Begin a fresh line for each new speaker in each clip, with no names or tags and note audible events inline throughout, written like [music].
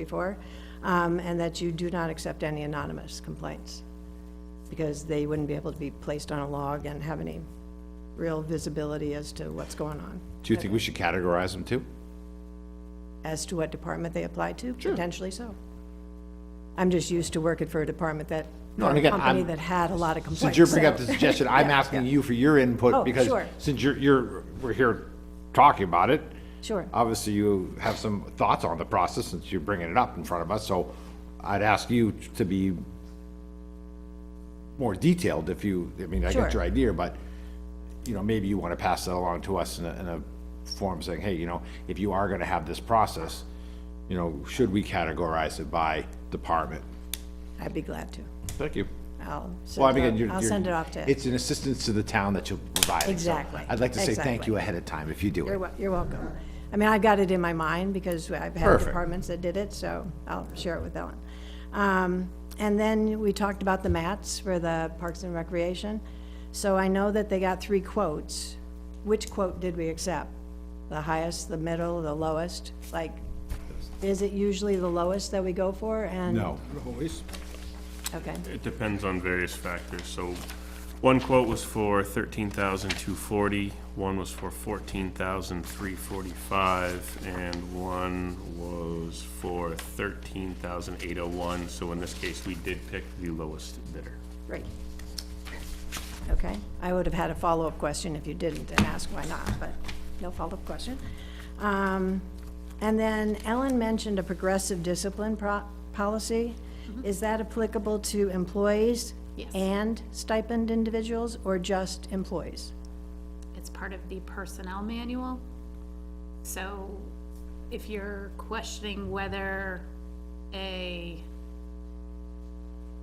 before, um, and that you do not accept any anonymous complaints, because they wouldn't be able to be placed on a log and have any real visibility as to what's going on,
Do you think we should categorize them too?
as to what department they apply to, potentially so. I'm just used to working for a department that,
No,
or
and
a
again,
company
I'm-
that had a lot of complaints.
Since you're bringing up
so-
the suggestion,
[laughs]
I'm asking you for your
Oh,
input because
sure.
since you're, you're, we're here talking about it.
Sure.
Obviously, you have some thoughts on the process since you're bringing it up in front of us, so I'd ask you to be more detailed if you, I mean, I get
Sure.
your idea, but, you know, maybe you want to pass that along to us in a, in a form saying, hey, you know, if you are going to have this process, you know, should we categorize it by department?
I'd be glad to.
Thank you.
I'll
Well, I
send
mean,
it,
you're-
off- I'll
you're-
send it off to.
It's an assistance to the town that you're providing. so
Exactly,
I'd like to say thank
exactly.
you ahead of time if you do
You're,
it.
wel- you're welcome. I mean, I got it in my mind because I've had
Perfect.
departments that did it, so I'll share it with Ellen. Um, and then we talked about the mats for the Parks and Recreation. So I know that they got three quotes. Which quote did we accept? The highest, the middle, the lowest? Like, is it usually the lowest that we go for and?
No,
Okay,
It depends on various factors, so one quote was for thirteen thousand two forty, one was for fourteen thousand three forty-five, and one was for thirteen thousand eight oh one, so in this case, we did pick the lowest bidder.
great. Okay, I would have had a follow-up question if you didn't and asked why not, but no follow-up question. Um, and then Ellen mentioned a progressive discipline pro- policy. Is that applicable to employees?
Yes.
And stipend individuals or just employees?
It's part of the personnel manual. So if you're questioning whether a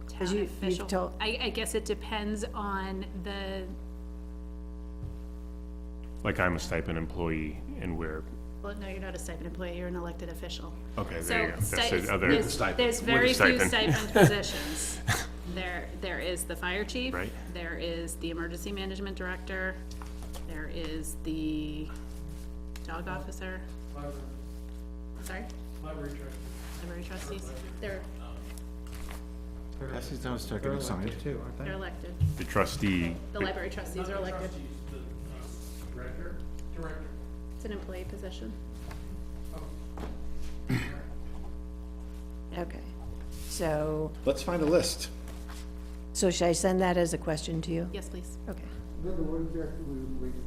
Because you-
town
you've
official,
told-
I, I guess it depends on the,
Like I'm a stipend employee and we're,
well, no, you're not a stipend employee, you're an elected official.
Okay, there
So
you go. That's
sti-
the
it's-
other-
there's-
Stipend.
There's
With a
very few
stipend. [laughs]
stipend positions. There, there is the fire chief.
Right.
There is the emergency management director. There is the dog officer. Sorry? Library trustees, they're,
They're elected
too, aren't
they're elected.
the trustee,
The library trustees uh, are elected.
Director? Director.
It's an employee position.
Okay, so,
Let's find a list.
so should I send that as a question to you?
Yes, please.
Okay,
Remember what exactly we were waiting,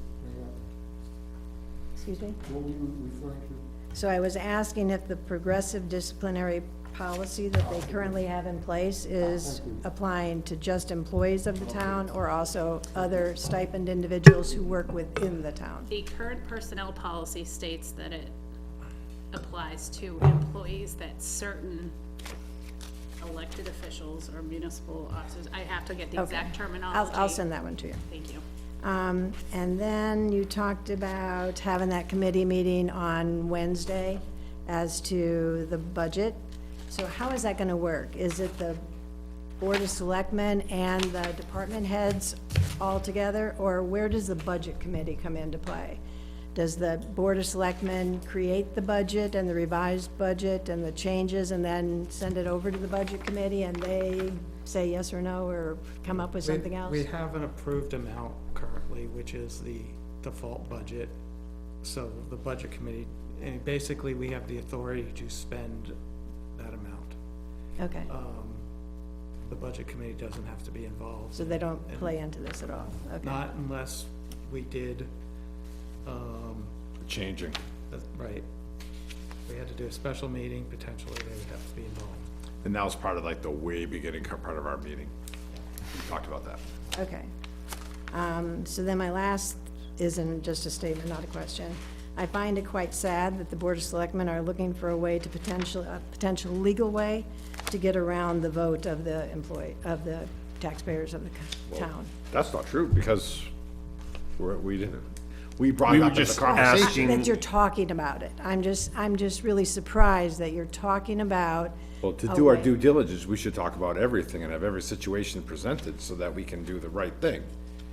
excuse me?
what were you referring to?
So I was asking if the progressive disciplinary policy that they currently have in place is applying to just employees of the town or also other stipend individuals who work within the town?
The current personnel policy states that it applies to employees that certain elected officials or municipal officers, I have to get the exact
I'll,
terminology.
I'll send that one to you.
Thank you.
Um, and then you talked about having that committee meeting on Wednesday as to the budget. So how is that gonna work? Is it the Board of Selectmen and the department heads all together? Or where does the budget committee come into play? Does the Board of Selectmen create the budget and the revised budget and the changes and then send it over to the budget committee and they say yes or no or come up with something else?
We have an approved amount currently, which is the default budget. So the budget committee, and basically, we have the authority to spend that amount. Um,
Okay.
The budget committee doesn't have to be involved.
So they don't play into this at all? Okay,
Not unless we did, um,
Changing.
that's right. We had to do a special meeting, potentially they would have to be involved.
And that was part of like the way beginning co- part of our meeting. We talked about that.
okay. Um, So then my last isn't just a statement, not a question. I find it quite sad that the Board of Selectmen are looking for a way to potential, a potential legal way to get around the vote of the employee, of the taxpayers of the co- town.
That's not true because we're, we didn't, we brought
We
it
were
up as
just
a conversation.
asking-
That you're talking about it. I'm just, I'm just really surprised that you're talking about.
Well, to do our
Okay.
due diligence, we should talk about everything and have every situation presented so that we can do the right thing.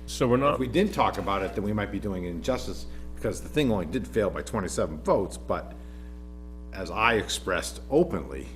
so we're
If
not,
we didn't talk about it, then we might be doing injustice because the thing only did fail by twenty-seven votes, but as I expressed openly,